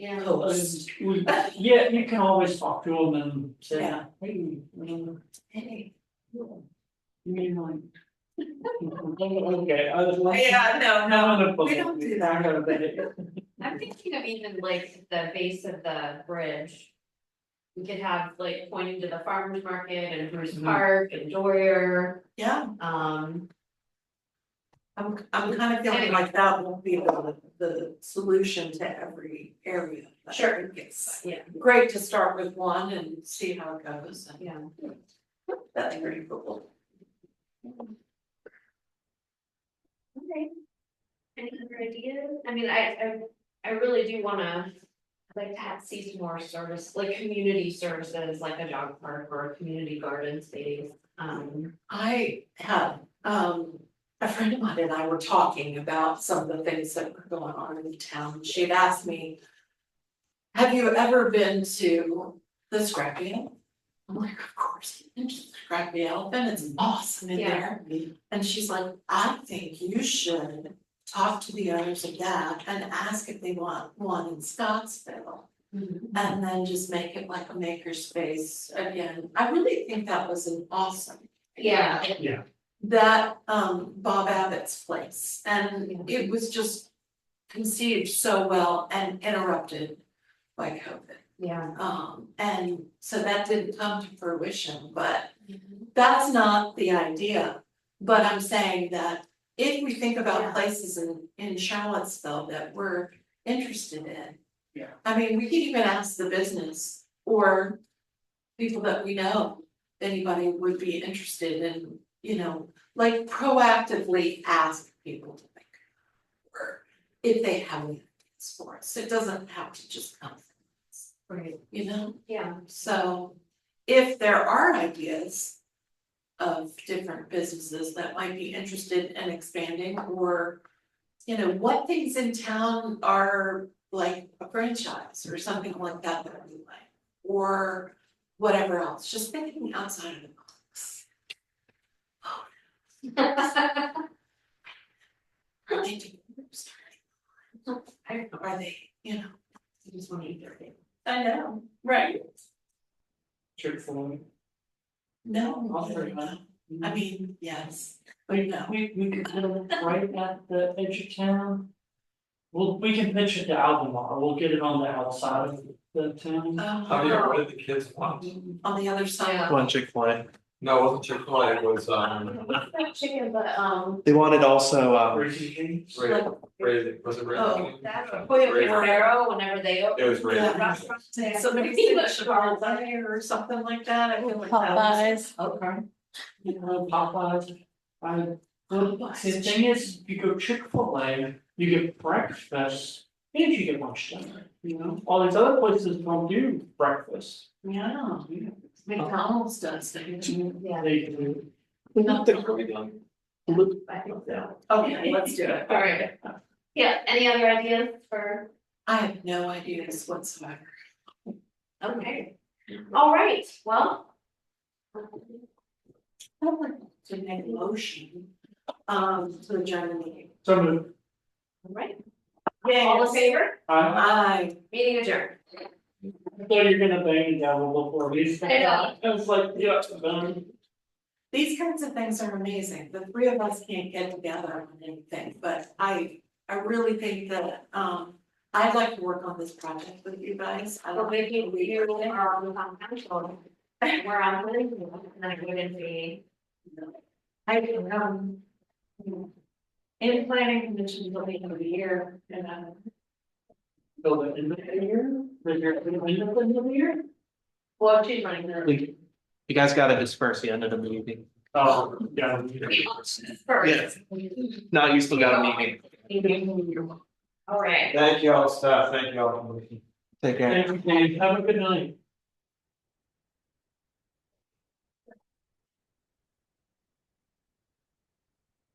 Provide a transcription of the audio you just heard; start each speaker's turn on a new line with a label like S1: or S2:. S1: Yeah.
S2: Post.
S3: We, yeah, you can always talk to them and say,
S2: Yeah.
S3: hey,
S1: Hey.
S3: you mean like. Okay, I was like.
S2: Yeah, no, no,
S3: No, no, no.
S2: we don't do that.
S3: No, but it-
S1: I'm thinking of even like the base of the bridge. We could have like pointing to the farmer's market and Bruce
S3: Mhm.
S1: Park and Dwyer,
S2: yeah,
S1: um,
S2: I'm, I'm kind of feeling like that won't be the, the solution to every area. but I
S1: Sure.
S2: think It's
S1: yeah,
S2: great to start with one and see how it goes, and
S1: yeah.
S2: that's pretty cool.
S1: Okay. Any other ideas? I mean, I, I, I really do wanna, like, have sees more service, like, community services, like a dog park or a community garden space, um.
S2: I had, um, a friend of mine and I were talking about some of the things that were going on in the town, she'd asked me. Have you ever been to the scrappy? Owl?" I'm like, of course, and she's like, scrappy elephant, it's awesome in
S1: Yeah.
S2: there. And she's like, I think you should talk to the owners of that and ask if they want one in Scottsville.
S1: Mm-hmm.
S2: And then just make it like a makerspace again. I really think that was an awesome.
S1: Yeah.
S3: Yeah.
S2: That um Bob Abbott's place and it was just conceived so well and interrupted by COVID.
S1: Yeah.
S2: Um and so that didn't come to fruition, but
S1: Mm-hmm.
S2: that's not the idea. But I'm saying that if we think
S1: Yeah.
S2: about places in in Charlottesville that we're interested in.
S3: Yeah.
S2: I mean, we could even ask the business or people that we know, if anybody would be interested in, you know, like proactively ask people to think. Or if they have any ideas for us, it doesn't have to just come, from us,
S1: Right,
S2: you know?
S1: yeah,
S2: So if there are ideas of different businesses that might be interested in expanding or you know, what things in town are like a franchise or something like that that we like or whatever else, just thinking outside of the box.
S1: I
S2: Are they doing,
S1: don't know,
S2: are they, you know?
S1: I just wanna eat everything.
S2: I know, right.
S3: Check for me.
S2: No,
S3: I'll
S2: I
S3: bring that.
S2: know. I mean, yes,
S3: We
S2: No.
S3: we we could put it right at the edge of town. Well, we can pitch it to Albemarle, we'll get it on the outside of the town.
S4: How many,
S2: um,
S4: what did the kids want?
S2: on the other side,
S5: One Chick-fil-A.
S4: No, it wasn't Chick-fil-A, it was, um,
S1: Not chicken, but, um,
S5: They wanted also, uh,
S3: Breezy James?
S4: Ray, Ray, was it Ray?
S2: Oh,
S1: that or
S4: Ray-
S1: Bolero, whenever they open.
S4: It was Ray.
S2: Yeah.
S1: Restaurants, they have
S2: somebody said
S1: English bars.
S2: Chipotle or something like that, I feel like that was.
S6: Popeyes.
S3: Okay. You know, Popeyes, I, the
S2: Popeyes.
S3: the thing is, if you go Chick-fil-A, you get breakfast, and you get lunch dinner, you know, all these other places don't do breakfast.
S2: Yeah,
S3: Yeah.
S2: McDonald's does, they do.
S1: Yeah,
S3: They do.
S1: I think so.
S2: Okay, let's do it.
S1: Alright. Yeah, any other ideas for,
S2: I have no ideas whatsoever.
S1: okay, alright, well. um,
S2: To make a motion, um, to adjourn the meeting.
S3: So, I'm gonna-
S1: Alright, all in favor,
S3: I,
S2: Aye.
S1: meeting adjourned.
S3: I thought you were gonna bang me down a little more,
S1: I know.
S3: I was like, yeah, done.
S2: These kinds of things are amazing. The three of us can't get together on anything, but I, I really think that, um, I'd like to work on this project with you guys. I
S1: Well,
S2: love
S1: we can, we
S2: it.
S1: are on the council, and we're on the, and I wouldn't be. I do, um. In planning conditions will be in the year, and i
S3: Build it in the year, the year, the year, the year.
S1: well, she's running
S5: we- you guys gotta disperse the end of the meeting.
S3: Oh, yeah.
S1: first.
S5: Not you still got a meeting.
S1: Alright.
S4: Thank you all, staff, thank you all.
S5: Take care.
S3: Thank you, Dave. have a good night.